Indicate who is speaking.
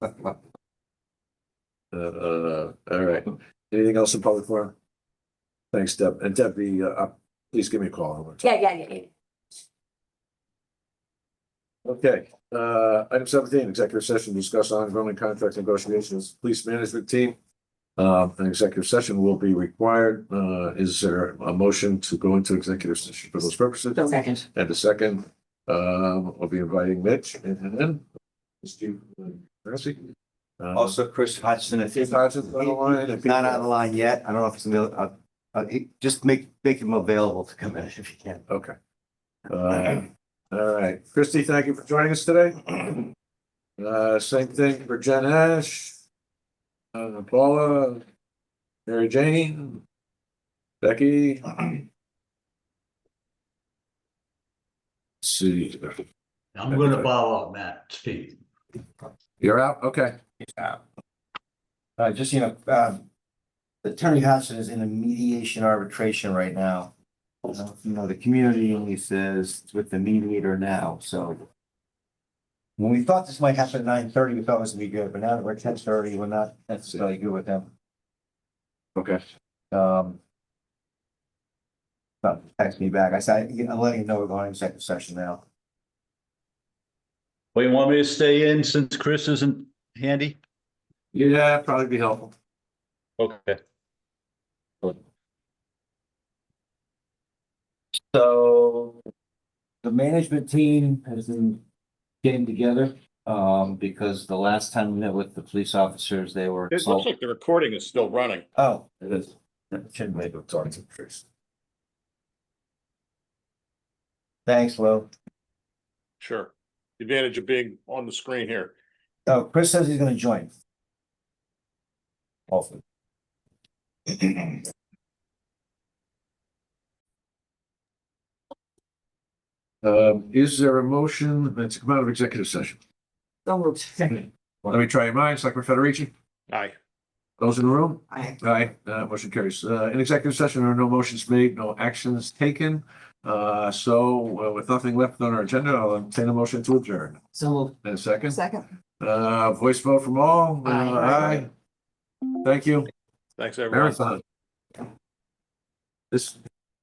Speaker 1: uh, all right. Anything else in public forum? Thanks, Deb. And Debbie, uh, uh, please give me a call.
Speaker 2: Yeah, yeah, yeah, yeah.
Speaker 1: Okay, uh, item seventeen, executive session, to discuss ongoing contract negotiations, police management team. Uh, an executive session will be required. Uh, is there a motion to go into executive session for those purposes?
Speaker 2: Second.
Speaker 1: And the second, um, I'll be inviting Mitch and and then. Steve. uh, Mercy. Also.
Speaker 3: Also, Chris Hodgson, if
Speaker 1: Steve
Speaker 3: he's
Speaker 1: Hodgson's on the line. and-
Speaker 3: not on the line yet, I don't know if it's, avail- uh, uh, he- just make, make him available to come in if you can.
Speaker 1: Okay. Uh, all right, Christy, thank you for joining us today. Uh, same thing for Jen Ash. Uh, Paula. Mary Jane. Becky. Let's See,
Speaker 4: I'm gonna follow up, Matt, Steve.
Speaker 1: you're out, okay.
Speaker 3: Uh, just, you know, um, Attorney Hodgson is in a mediation arbitration right now. You know, the community release is with the mediator now, so. When we thought this might happen at nine thirty, we thought it was gonna be good, but now that we're ten thirty, we're not necessarily good with them.
Speaker 1: Okay.
Speaker 3: Um. But text me back. I said, I'm letting you know we're going into second session now.
Speaker 4: Well, you want me to stay in since Chris isn't handy?
Speaker 1: Yeah, probably be helpful.
Speaker 4: Okay.
Speaker 3: So the management team has been getting together, um, because the last time we met with the police officers, they were.
Speaker 5: It looks like the recording is still running.
Speaker 3: Oh, it is. Shouldn't make it talk to Chris. Thanks, Lou.
Speaker 5: Sure. The Advantage of being on the screen here.
Speaker 3: Oh, Chris says he's gonna join. Hopefully.
Speaker 1: Um, is there a motion to come out of executive session?
Speaker 2: Don't move. Second.
Speaker 1: Let me try your minds, Selectman Federici,
Speaker 5: Aye.
Speaker 1: those in the room?
Speaker 2: I,
Speaker 1: Aye, uh, motion carries. Uh, in executive session, there are no motions made, no actions taken. Uh, so uh, with nothing left on our agenda, I'll entertain a motion to adjourn.
Speaker 2: so moved.
Speaker 1: And a second,
Speaker 2: Second.
Speaker 1: uh, voice vote from all. Uh, Aye.
Speaker 2: Aye.
Speaker 1: Thank you.
Speaker 5: Thanks, everyone.
Speaker 1: Marathon. This